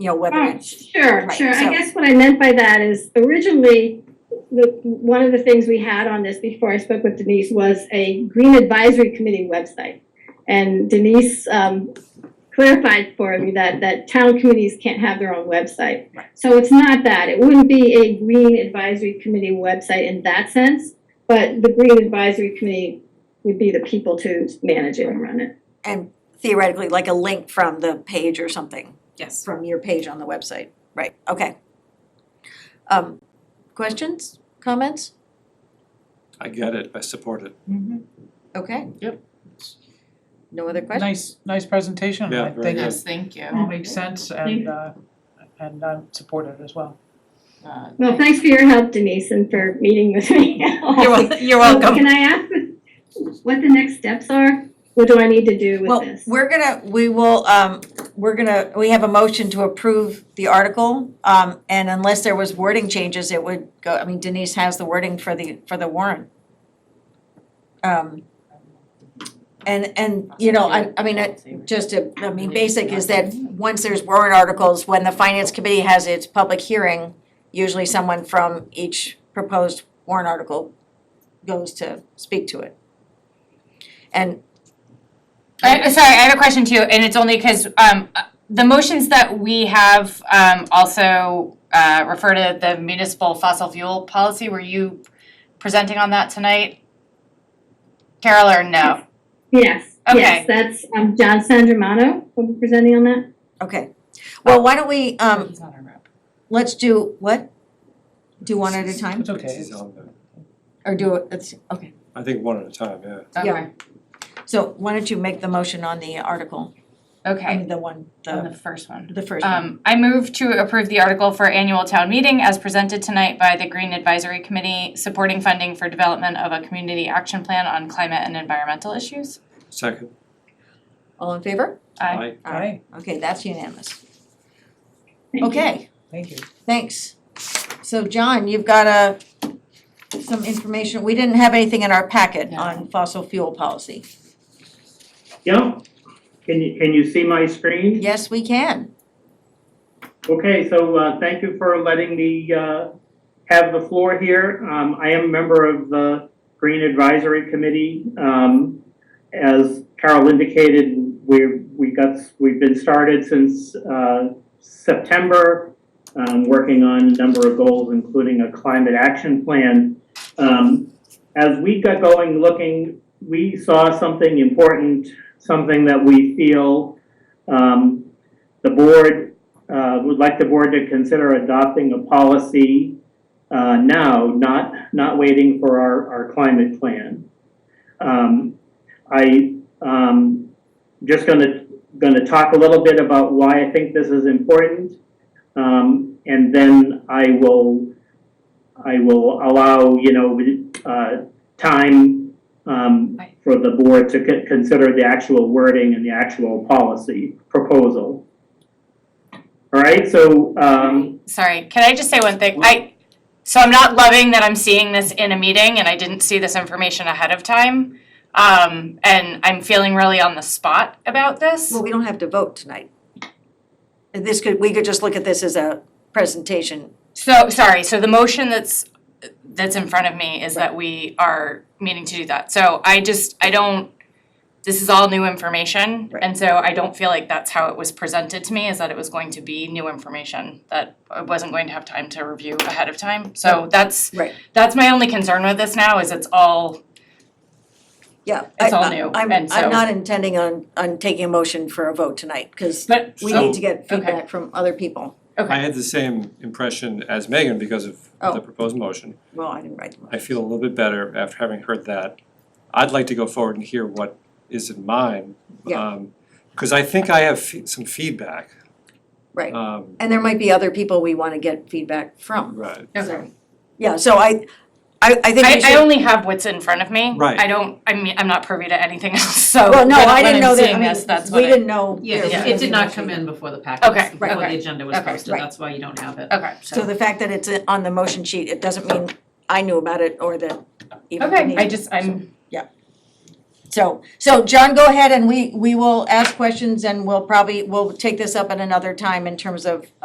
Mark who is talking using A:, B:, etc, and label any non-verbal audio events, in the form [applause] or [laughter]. A: you know, whether
B: Right,
A: it's,
B: Sure,
A: right,
B: sure. I
A: so-
B: guess what I meant by that is originally, the, one of the things we had on this before I spoke with Denise was a green advisory committee website. And Denise um, clarified for me that, that town committees can't have their own website.
A: Right.
B: So it's not that. It wouldn't be a green advisory committee website in that sense, but the green advisory committee would be the people to manage it and run it.
A: and theoretically, like a link from the page or something,
C: Yes.
A: from your page on the website, right, okay. Um, questions, comments?
D: I get it, I support it.
A: Okay.
E: Yep.
A: No other questions?
E: Nice, nice presentation,
D: Yeah,
E: I
D: very
E: think
D: good.
E: it
C: Yes, thank you.
E: all makes sense and uh and I'm supportive as well.
C: Uh,
B: Well, thanks for your help Denise and for meeting with me.
A: [laughs]
B: [laughs]
A: You're wel- you're
B: So
A: welcome.
B: Oh, Can I ask what- what the next steps are? What do I need to do with
A: Well,
B: this?
A: we're gonna, we will, um, we're gonna, we have a motion to approve the article. Um, and unless there was wording changes, it would go, I mean Denise has the wording for the, for the warrant. Um, and, and, you know, I, I mean, I, just a, I mean, basic is that once there's warrant articles, when the finance committee has its public hearing, usually someone from each proposed warrant article goes to speak to it. And
F: I, sorry, I have a question too, and it's only because um, uh, the motions that we have um, also uh, refer to the municipal fossil fuel policy. Were you presenting on that tonight, Carol, or no?
B: Yes,
F: Okay.
B: yes, that's um John Sandramano, will be presenting on that.
A: Okay, well, why don't we, um,
F: He's not our rep.
A: let's do what? Do one at a time,
E: It's okay.
D: He's on there.
A: or do it, it's, okay,
D: I think one at a time, yeah.
A: Yeah. so why don't you make the motion on the article, I
F: Okay,
A: mean, the one,
F: on
A: the,
F: the first one.
A: the first one,
F: Um, I move to approve the article for annual town meeting as presented tonight by the Green Advisory Committee, supporting funding for development of a community action plan on climate and environmental issues.
D: Second,
A: all in favor?
F: Aye.
E: Aye,
A: Okay, that's unanimous,
B: Thank you.
A: okay,
E: thank you.
A: thanks. So John, you've got a, some information, we didn't have anything in our packet
F: No.
A: on fossil fuel policy,
G: Yeah, can you, can you see my screen?
A: yes, we can,
G: Okay, so, uh, thank you for letting me, uh, have the floor here. Um, I am a member of the Green Advisory Committee. Um, as Carol indicated, we, we got, we've been started since, uh, September, um, working on a number of goals, including a climate action plan. Um, as we got going, looking, we saw something important, something that we feel, um, the board uh, would like the board to consider adopting a policy uh, now, not, not waiting for our, our climate plan. Um, I, um, just gonna, gonna talk a little bit about why I think this is important. Um, and then I will, I will allow, you know, uh, time, um,
F: Right.
G: for the board to con- consider the actual wording and the actual policy proposal. All right, so, um,
F: Sorry, can I just say one thing? I, so I'm not loving that I'm seeing this in a meeting and I didn't see this information ahead of time. Um, and I'm feeling really on the spot about this.
A: well, we don't have to vote tonight. This could, we could just look at this as a presentation,
F: So, sorry, so the motion that's, that's in front of me is that we are meaning to do that. So I just, I don't, this is all new information.
A: Right.
F: And so I don't feel like that's how it was presented to me, is that it was going to be new information that I wasn't going to have time to review ahead of time. So that's,
A: right,
F: that's my only concern with this now, is it's all
A: Yeah.
F: It's
A: I-
F: all
A: I-
F: new,
A: I'm-
F: and
A: I'm
F: so-
A: not intending on, on taking a motion for a vote tonight, because
F: But
A: we
D: So-
A: need to get feedback from other people.
D: I
F: okay,
D: had the same impression as Megan because of
A: Oh.
D: the proposed motion.
A: Well, I didn't write them.
D: I feel a little bit better after having heard that. I'd like to go forward and hear what is in mine.
A: Yeah.
D: Because I think I have fe- some feedback.
A: Right.
D: Um,
A: And there might be other people we want to get feedback from.
D: Right,
A: So, Yeah, so I, I, I think we
F: I, I
A: should,
F: only have what's in front of me.
D: Right.
F: I don't, I mean, I'm not privy to anything [laughs] else, so
A: well,
F: when
A: no,
F: when
A: I didn't know
F: Oh, I'm
A: that, I
F: seeing this,
A: mean,
F: that's
A: we
F: what I,
A: didn't know. there was
C: Yeah, it
A: gonna
C: did
A: be
C: not
A: a
C: come in before the
F: Okay,
C: packet, before
F: okay,
C: the agenda was
F: okay,
C: posted,
A: right.
C: that's why you don't have it.
F: okay.
A: So the fact that it's on the motion sheet, it doesn't mean I knew about it or that even
F: Okay,
A: Denise-
F: I just, I'm.
A: yeah. So, so John, go ahead and we, we will ask questions and we'll probably, we'll take this up at another time in terms of